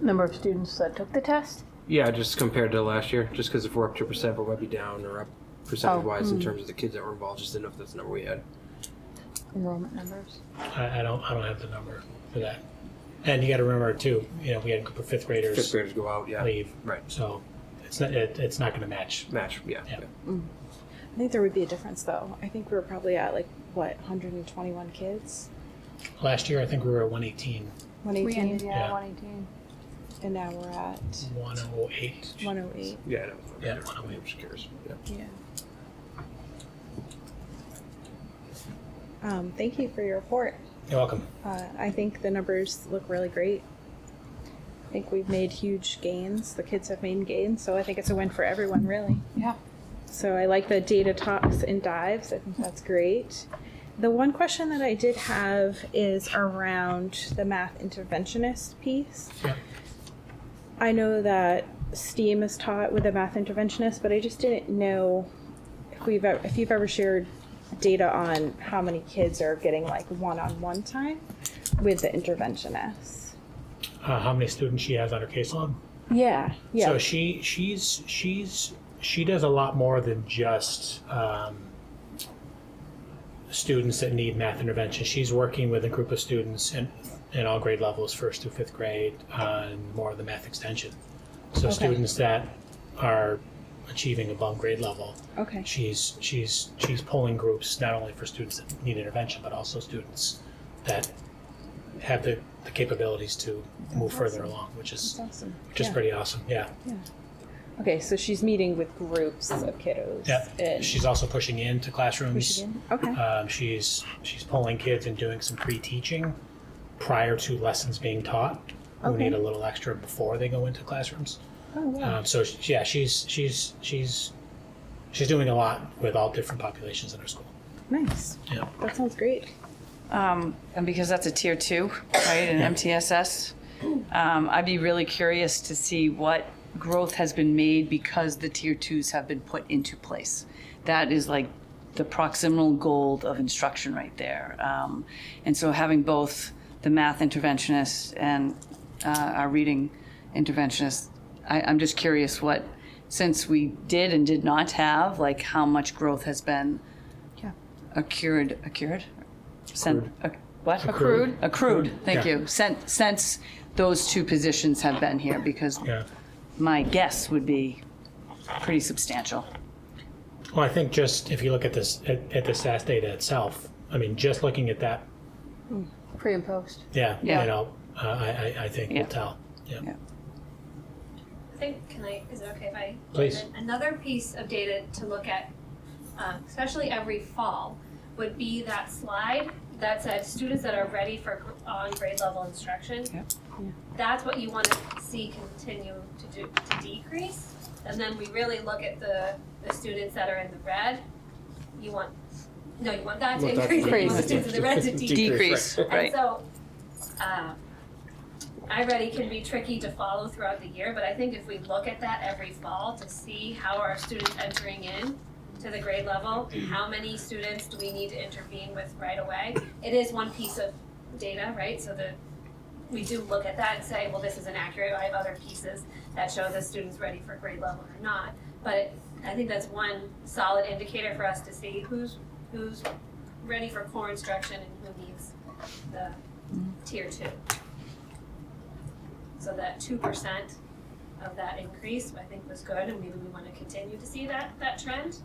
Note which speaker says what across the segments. Speaker 1: number of students that took the test.
Speaker 2: Yeah, just compared to last year, just because if we're up two percent, we might be down or up percentage wise in terms of the kids that were involved. Just didn't know if that's the number we had.
Speaker 1: Enrollment numbers.
Speaker 3: I, I don't, I don't have the number for that. And you got to remember too, you know, we had a group of fifth
Speaker 2: Fifth
Speaker 3: graders
Speaker 2: graders go out, yeah,
Speaker 3: leave,
Speaker 2: right.
Speaker 3: so it's not, it, it's not going to match.
Speaker 2: Match, yeah.
Speaker 3: Yeah.
Speaker 2: yeah.
Speaker 4: I think there would be a difference though. I think we were probably at like what 121 kids,
Speaker 3: Last year, I think we were at 118,
Speaker 4: 118,
Speaker 3: yeah, Yeah.
Speaker 1: one eighteen.
Speaker 4: and now we're at
Speaker 3: 108.
Speaker 4: 108.
Speaker 2: Yeah, I know. Okay,
Speaker 3: Yeah.
Speaker 2: never mind, I'm just curious. Yeah.
Speaker 4: Yeah. Um, thank you for your report.
Speaker 3: You're welcome.
Speaker 4: Uh, I think the numbers look really great. I think we've made huge gains. The kids have made gains, so I think it's a win for everyone, really.
Speaker 1: Yeah.
Speaker 4: So I like the data talks and dives. I think that's great. The one question that I did have is around the math interventionist piece.
Speaker 3: Yeah.
Speaker 4: I know that STEAM is taught with a math interventionist, but I just didn't know if we've ever, if you've ever shared data on how many kids are getting like one-on-one time with the interventionist.
Speaker 3: Uh, how many students she has on her caseload?
Speaker 4: Yeah, yeah.
Speaker 3: So she she's she's she does a lot more than just um, students that need math intervention. She's working with a group of students in, in all grade levels, first through fifth grade, on more of the math extension. So students that are achieving above grade level,
Speaker 4: okay.
Speaker 3: she's she's she's pulling groups not only for students that need intervention, but also students that have the, the capabilities to move further along, which is
Speaker 4: Awesome.
Speaker 3: which is
Speaker 4: Yeah.
Speaker 3: pretty awesome. Yeah.
Speaker 4: Okay, so she's meeting with groups of kiddos.
Speaker 3: Yeah,
Speaker 4: and-
Speaker 3: she's also pushing into
Speaker 4: Push
Speaker 3: classrooms.
Speaker 4: it in. Okay.
Speaker 3: Um, she's she's pulling kids and doing some pre-teaching prior to lessons being taught. Who
Speaker 4: Okay.
Speaker 3: need a little extra before they go into classrooms.
Speaker 4: Oh wow.
Speaker 3: Um, so she- yeah, she's she's she's she's doing a lot with all different populations in her school.
Speaker 4: nice.
Speaker 3: Yeah.
Speaker 4: That sounds great.
Speaker 5: Um, and because that's a tier two, right, in MTSS, um, I'd be really curious to see what growth has been made because the tier twos have been put into place. That is like the proximal gold of instruction right there. Um, and so having both the math interventionist and uh, our reading interventionist, I, I'm just curious what, since we did and did not have, like how much growth has been
Speaker 4: Yeah.
Speaker 5: accrued, accrued, Sen- ac- what?
Speaker 3: Accrued.
Speaker 5: Accrued, thank
Speaker 3: Yeah.
Speaker 5: you. Sen- Since those two positions have been here, because
Speaker 3: Yeah.
Speaker 5: my guess would be pretty substantial.
Speaker 3: Well, I think just if you look at this at, at the SAS data itself, I mean, just looking at that,
Speaker 1: Pre and post.
Speaker 3: yeah,
Speaker 5: Yeah.
Speaker 3: you know, uh, I, I I think
Speaker 5: Yeah.
Speaker 3: will tell. Yeah.
Speaker 5: Yeah.
Speaker 6: I think, can I, is it okay if I?
Speaker 3: Please.
Speaker 6: And Another piece of data to look at, um, especially every fall, would be that slide that said students that are ready for gr- on grade level instruction.
Speaker 5: Yep.
Speaker 4: Yeah.
Speaker 6: That's what you want to see continue to do, to decrease. And then we really look at the, the students that are in the red. You want, no, you want that to
Speaker 2: Want that to
Speaker 6: increase, and you want the
Speaker 2: decrease.
Speaker 6: students in the red to decrease.
Speaker 5: Decrease,
Speaker 6: And
Speaker 5: right.
Speaker 6: so, um, iReady can be tricky to follow throughout the year, but I think if we look at that every fall to see how are our students entering in to the grade level, how many students do we need to intervene with right away? It is one piece of data, right? So the, we do look at that and say, well, this is inaccurate, I have other pieces that show the student's ready for grade level or not. But I think that's one solid indicator for us to see who's, who's ready for core instruction and who needs the tier two. So that two percent of that increase, I think, was good, and maybe we want to continue to see that, that trend.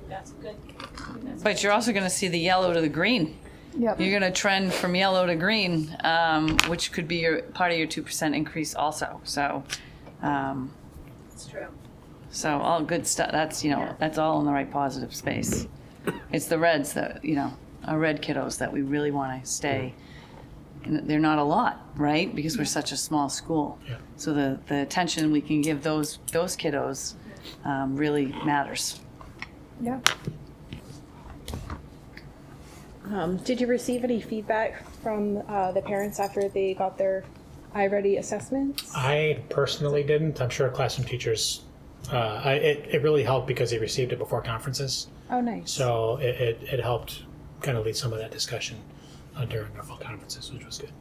Speaker 6: We've got some good. we've got some-
Speaker 5: But you're also going to see the yellow to the green.
Speaker 1: Yep.
Speaker 5: You're going to trend from yellow to green, um, which could be your, part of your 2% increase also. So, um,
Speaker 6: It's true.
Speaker 5: so all good stuff. That's, you know,
Speaker 6: Yeah.
Speaker 5: that's all in the right positive space. It's the reds that, you know, our red kiddos that we really want to stay. And they're not a lot, right? Because we're such a small school.
Speaker 3: Yeah.
Speaker 5: So the, the attention we can give those, those kiddos um, really matters.
Speaker 1: Yeah.
Speaker 4: Um, did you receive any feedback from uh, the parents after they got their iReady assessments?
Speaker 3: I personally didn't. I'm sure classroom teachers. Uh, I, it, it really helped because they received it before conferences,
Speaker 4: Oh, nice.
Speaker 3: so it, it, it helped kind of lead some of that discussion uh, during our fall conferences, which was good.